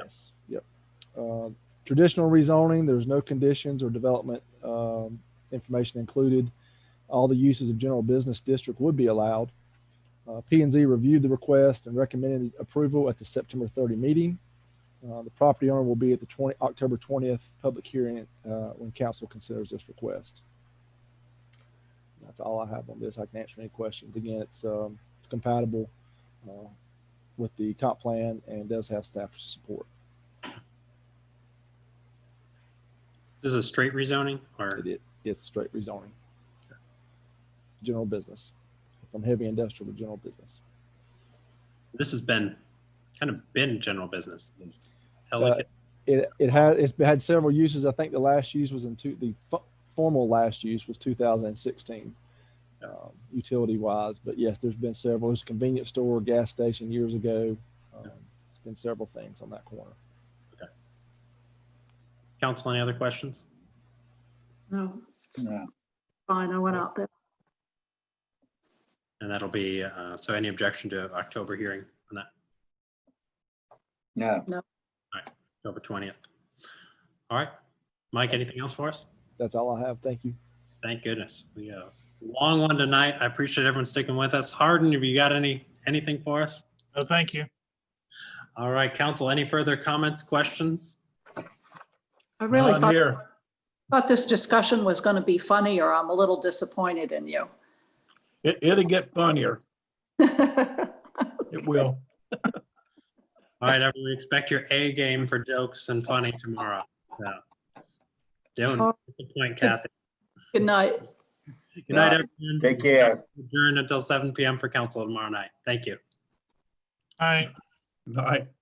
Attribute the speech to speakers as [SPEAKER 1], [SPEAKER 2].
[SPEAKER 1] Yes, yep. Uh, Traditional rezoning, there's no conditions or development um, information included. All the uses of general business district would be allowed. Uh, P and Z reviewed the request and recommended approval at the September 30 meeting. Uh, The property owner will be at the 20, October 20th public hearing uh, when council considers this request. That's all I have on this. I can answer any questions. Again, it's um, it's compatible uh, with the comp plan and does have staff support.
[SPEAKER 2] This is a straight rezoning or
[SPEAKER 1] It is, it's straight rezoning. General business, from heavy industrial to general business.
[SPEAKER 2] this has been kind of been general business. This
[SPEAKER 1] Uh,
[SPEAKER 2] Ellicott,
[SPEAKER 1] It, it had, it's had several uses. I think the last use was in two, the fo- formal last use was 2016, um, utility wise. But yes, there's been several. There's a convenience store, gas station years ago. Um, It's been several things on that corner.
[SPEAKER 2] council, any other questions?
[SPEAKER 3] No, it's
[SPEAKER 4] Yeah.
[SPEAKER 3] fine. I went out there.
[SPEAKER 2] And that'll be, uh, so any objection to October hearing on that,
[SPEAKER 4] No,
[SPEAKER 2] October 20th? All right. Mike, anything else for us?
[SPEAKER 1] That's all I have. Thank you.
[SPEAKER 2] Thank goodness. We got a long one tonight. I appreciate everyone sticking with us. Harden, have you got any, anything for us?
[SPEAKER 5] No, thank you.
[SPEAKER 2] All right, council, any further comments, questions?
[SPEAKER 3] I really
[SPEAKER 5] None
[SPEAKER 3] thought,
[SPEAKER 5] here.
[SPEAKER 3] thought this discussion was going to be funnier. I'm a little disappointed in you.
[SPEAKER 5] It, it'll get funnier. It will.
[SPEAKER 2] All right, everyone, expect your A game for jokes and funny tomorrow. So, Don't disappoint Kathy.
[SPEAKER 3] Good night.
[SPEAKER 2] Good night,
[SPEAKER 4] Yeah.
[SPEAKER 2] everyone.
[SPEAKER 4] take care.
[SPEAKER 2] Adjourn until seven PM for council tomorrow night. Thank you.
[SPEAKER 5] All right. All right.